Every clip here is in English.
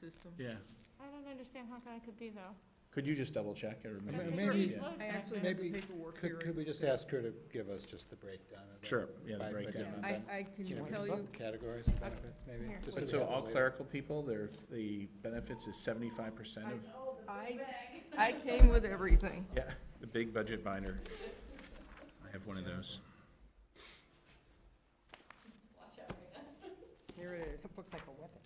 system. Yeah, I don't understand how that could be though. could you just double check or Ma- maybe? maybe- It's Yeah. low I back actually then. have the Maybe- paperwork here. Could, could we just ask her to give us just the breakdown of that? Sure, yeah, the By- by breakdown different- of I, I can you know, tell you, Categories of benefits, maybe? Here. just But we so have it all later. clerical people, their, the benefits is seventy-five percent of, I, I came with everything. yeah, the big budget binder. I have one of those. Here it is. Looks like a weapon.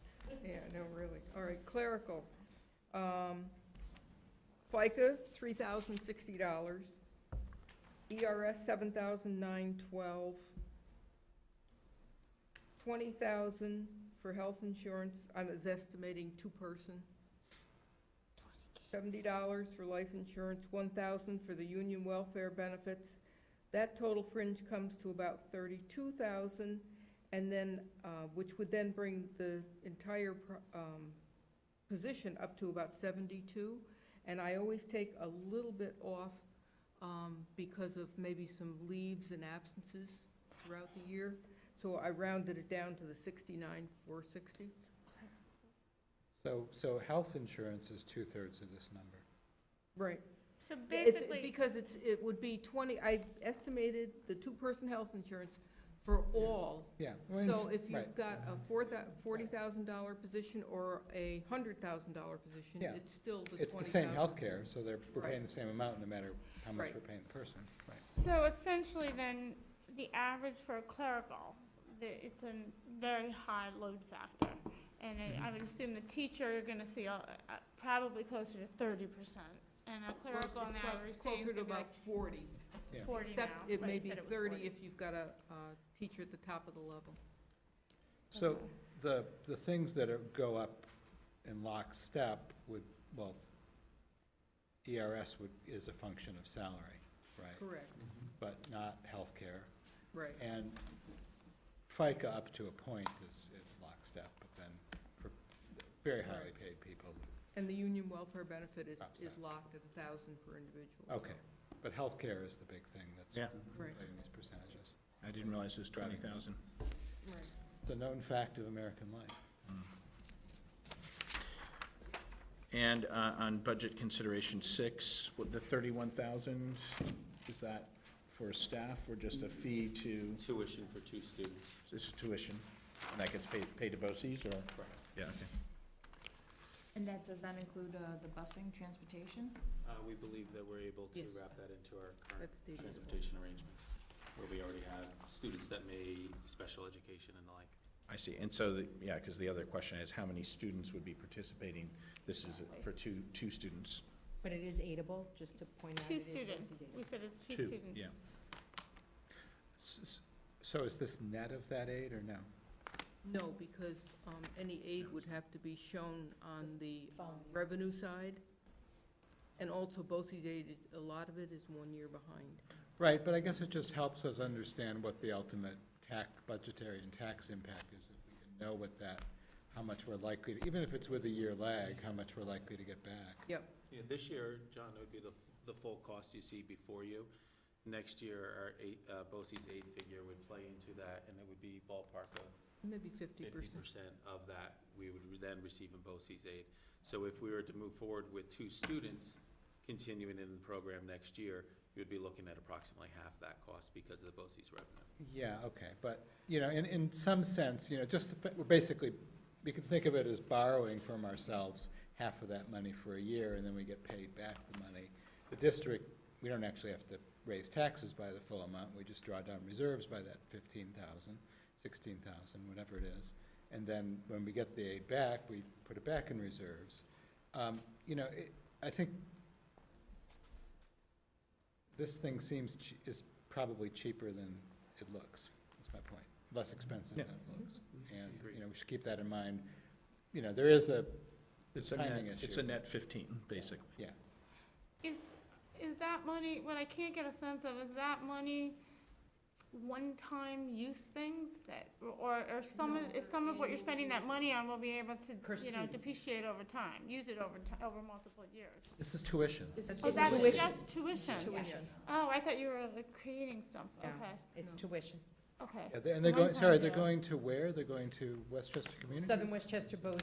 Yeah, no, really. All right, clerical. Um, FICA, three thousand sixty dollars. ERS, seven thousand nine twelve. Twenty thousand for health insurance, I'm is estimating two-person. Seventy dollars for life insurance, one thousand for the union welfare benefits. That total fringe comes to about thirty-two thousand. And then, uh, which would then bring the entire pro- um, position up to about 72. And I always take a little bit off um, because of maybe some leaves and absences throughout the year. So I rounded it down to the 69, 460. So, so health insurance is two-thirds of this number. Right. So It's- basically, Because it's, it would be 20, I estimated the two-person health insurance for all Yeah. So if you've right. got a four thou, forty thousand dollar position or a hundred thousand dollar position, Yeah. it's still the twenty thousand. It's the same healthcare, so they're, we're Right. paying the same amount no matter how much Right. we're paying the person. Right. so essentially then, the average for a clerical, the- it's a very high load factor. And I- I would assume the teacher, you're gonna see a- a- probably closer to thirty percent. And a Well, clerical it's now, about you're saying Closer it's to gonna be about like forty, Yeah. forty now. except it but may you be said it was thirty 40. if you've got a, uh teacher at the top of the level. So Okay. the, the things that are, go up in lockstep would, well, ERS would, is a function of salary, right? Correct, But not healthcare. right. And FICA up to a point is, is lockstep, but then for very highly paid people, And the union welfare benefit is, is Upside. locked at a thousand per individual. okay. But healthcare is the big thing that's Yeah. Right. inflating these percentages. I didn't realize it was twenty thousand. Right. It's a known fact of American life. And uh, on budget consideration six, with the thirty-one thousand, is that for staff or just a fee to, tuition for two students. is it tuition? And that gets paid, paid to BOCES or? Yeah, okay. And that, does that include uh, the busing, transportation? Uh, we believe that we're able to Yes. wrap that into our current That's the- transportation arrangements, where we already have students that may special education and the like. I see, and so, the- yeah, because the other question is how many students would be participating? This is for two, two students. But it is aidable, just to point out. Two it is students, versus we aidable. said it's two students. Yeah, S- s- So is this net of that aid or no? No, because, um, any aid would have to be shown on the Following year. revenue side. And also, BOCES aid, is- a lot of it is one year behind. Right, but I guess it just helps us understand what the ultimate tax, budgetary and tax impact is, if we can know what that, how much we're likely, to even if it's with a year lag, how much we're likely to get back. Yep, Yeah, this year, John, it would be the, f- the full cost you see before you. Next year, our eight, uh, BOCES aid figure would play into that, and it would be ballpark of maybe fifty fifty percent. percent of that, we would then receive in BOCES aid. So if we were to move forward with two students continuing in the program next year, you would be looking at approximately half that cost because of the BOCES revenue. Yeah, okay, but, you know, in, in some sense, you know, just, the fa- we're basically, we can think of it as borrowing from ourselves half of that money for a year, and then we get paid back the money. The district, we don't actually have to raise taxes by the full amount, we just draw down reserves by that fifteen thousand, sixteen thousand, whatever it is. And then when we get the aid back, we put it back in reserves. Um, you know, it, I think this thing seems, ch- is probably cheaper than it looks, that's my point, less expensive than it looks. And, Agreed. you know, we should keep that in mind. You know, there is a it's a net, timing issue. it's a net fifteen, basically. Yeah, Is, is that money, what I can't get a sense of, is that money one-time use things that, or, or some of, is some of what you're spending that money on will be able Per to, you know, student. depreciate over time, use it over ti, over multiple years? this is tuition. This is Oh, It's that's tuition. just tuition? Tuition. Oh, I thought you were like creating stuff, Yeah. okay, It's tuition. okay. Yeah, they- And they're It's a going, sorry, one-time they're deal. going to where? They're going to Westchester Community? Southern Westchester Bo